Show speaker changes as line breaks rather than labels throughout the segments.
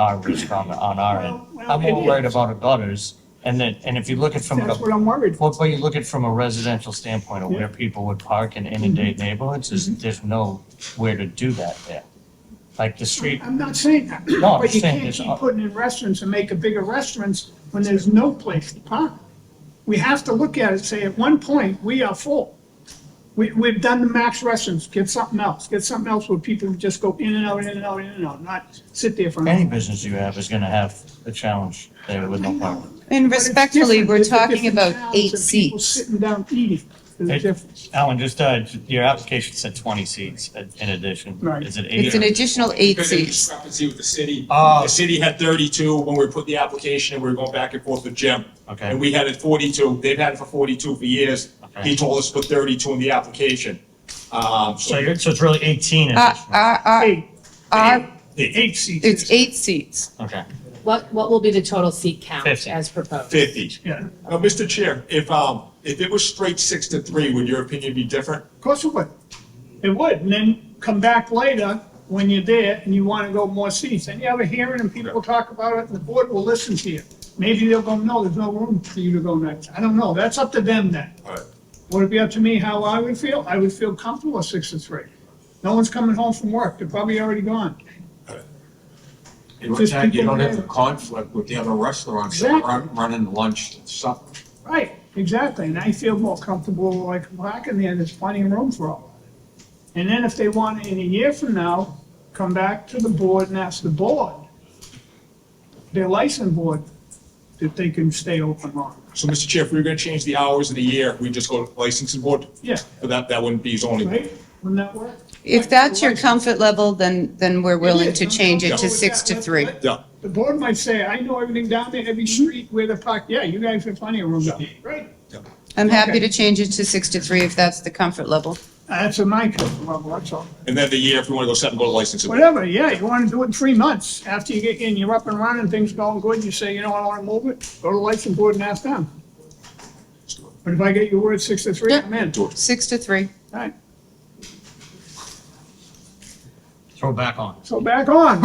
our risk on, on our end.
Well,
I'm more
it
worried
is.
about abutters, and then, and if you look at from,
That's what I'm worried for.
well, but you look at from a residential standpoint of where people would park and inundate
Mm-hmm.
neighborhoods, is there's no where to do that there. Like the street,
I'm not saying that.
No, I'm
But you
saying
can't
it's-
keep putting in restaurants and make a bigger restaurants when there's no place to park. We have to look at it, and say, at one point, we are full. We, we've done the max restaurants, get something else, get something else where people just go in and out, in and out, in and out, not sit there for. an
any
hour.
business you have is gonna have a challenge there with no parking.
And
But it's
respectfully,
different.
we're
There's the
talking
different
about
towns
eight
and people
seats.
Sitting down eating, there's a
It-
difference.
Alan, just, uh, your application said twenty seats uh, in addition.
Right.
Is it eight?
It's an additional eight
Because of the
seats.
discrepancy with the city.
Oh.
Ah.
The city had thirty-two when we put the application and we were going back and forth with Jim.
Okay.
And we had it forty-two, they've had it for forty-two for years.
Okay.
He told us to put thirty-two in the application. Um,
So
so
you're, so it's really eighteen
Uh,
additional,
uh, uh,
Eight,
uh,
eight seats.
It's eight seats.
okay.
What, what will be the total seat count
Fifty.
as proposed?
fifty.
Yeah, of
Now, Mr. Chair, if, um, if it was straight six to three, would your opinion be different?
course it would. It would, and then come back later when you're there and you want to go more seats. And you have a hearing and people will talk about it and the board will listen to you. Maybe they'll go, no, there's no room for you to go next. I don't know. That's up to them then.
All right.
Would it be up to me how I would feel? I would feel comfortable at six to three. No one's coming home from work. They're probably already gone.
In
Just
fact, you
people
don't have the
there.
conflict with the other restaurants that
Exactly.
run, running lunch and supper.
Right, exactly, and I feel more comfortable like parking there, there's plenty of room for all. And then if they want, in a year from now, come back to the board and ask the board, their license board, if they can stay open long.
So, Mr. Chair, if we were gonna change the hours of the year, we just go to licensing board?
Yeah,
But that, that wouldn't be zoning.
right, wouldn't that work?
If that's your comfort level, then, then we're willing to change it to six to three.
Yeah.
The board might say, I know everything down there, every street where the park, yeah, you guys have plenty of room. Right,
I'm happy to change it to six to three if that's the comfort level.
that's a my comfort level, that's all.
And then the year, if we wanna go seven, go to licensing. board.
Whatever, yeah, you wanna do it in three months, after you get in, you're up and running, things going good, you say, you know, I wanna move it, go to the license board and ask them. But if I get your word six to three, I'm in. All
Six to three.
right,
Throw back on.
so back on.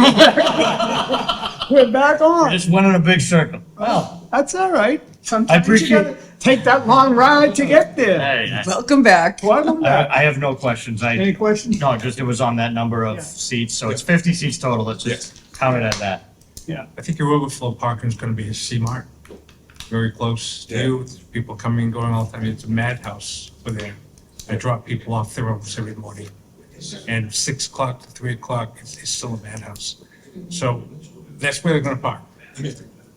We're back
uh,
on,
Just went in a big circle. Well,
that's all right, sometimes you
appreciate-
gotta take that long ride to get there.
hey, I-
Welcome back.
Welcome back,
I, I have no questions. I.
any questions?
No, just it was on that number
Yeah.
of seats, so it's fifty seats total, let's just count it at that.
Yeah,
I think your overflow parking is gonna be a C-Mart, very close to you, with people coming and going all the time, it's a madhouse for there. I drop people off there almost every morning, and six o'clock to three o'clock, it's, it's still a madhouse. So that's where they're gonna park.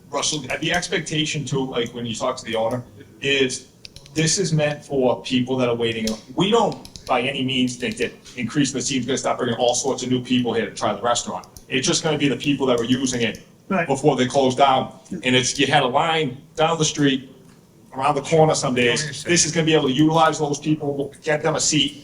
Russell, the expectation too, like when you talk to the owner, is this is meant for people that are waiting. We don't by any means think that increasing the seats is gonna stop bringing all sorts of new people here to try the restaurant. It's just gonna be the people that were using it
Right.
before they closed down. And it's, you had a line down the street, around the corner some days. This is gonna be able to utilize those people, get them a seat,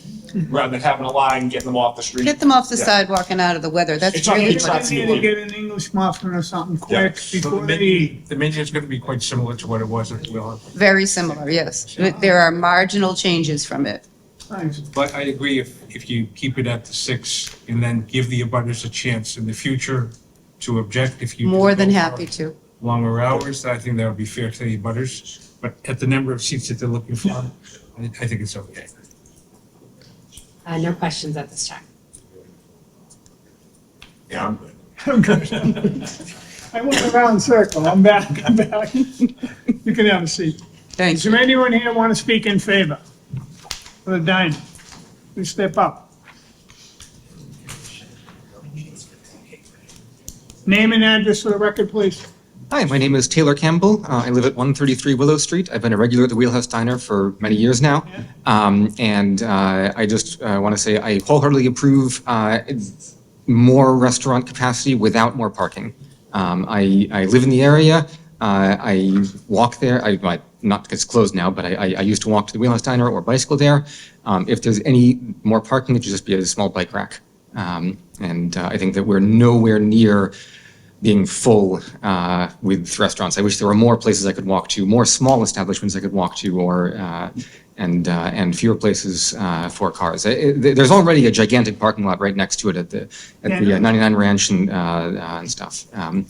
rather than having a line, getting them off the street.
Get them off the
Yeah.
sidewalk and out of the weather. That's
It's on
really
each
what
side.
it's.
Maybe they get an English muffin or something
Yeah.
quick
So the
before they
menu-
eat.
The menu is gonna be quite similar to what it was at Wheel Hunt.
Very similar, yes. There are marginal changes from it.
Nice.
But I agree, if, if you keep it at the six, and then give the abutters a chance in the future to object if you. do
More than
go
happy
for
to.
longer hours, I think that would be fair to the butters, but at the number of seats that they're looking for, I I think it's okay.
Uh, no questions at this time.
Yeah, I'm good.
I went around in circle, I'm back, I'm back. You can have a seat.
Thank
Is there
you.
anyone here want to speak in favor of the dining? Please step up. Name and address for the record, please.
Hi, my name is Taylor Campbell. Uh, I live at 133 Willow Street. I've been a regular at the Wheelhouse Diner for many years now. Um, and uh, I just uh, want to say I wholeheartedly approve uh, more restaurant capacity without more parking. Um, I, I live in the area. Uh, I walk there. I, I not because it's closed now, but I, I, I used to walk to the Wheelhouse Diner or bicycle there. Um, if there's any more parking, it should just be a small bike rack. Um, and uh, I think that we're nowhere near being full uh, with restaurants. I wish there were more places I could walk to, more small establishments I could walk to, or uh, and, uh, and fewer places uh, for cars. It- it- there's already a gigantic parking lot right next to it at the, at the uh, 99 Ranch and, uh, uh, and stuff. Um,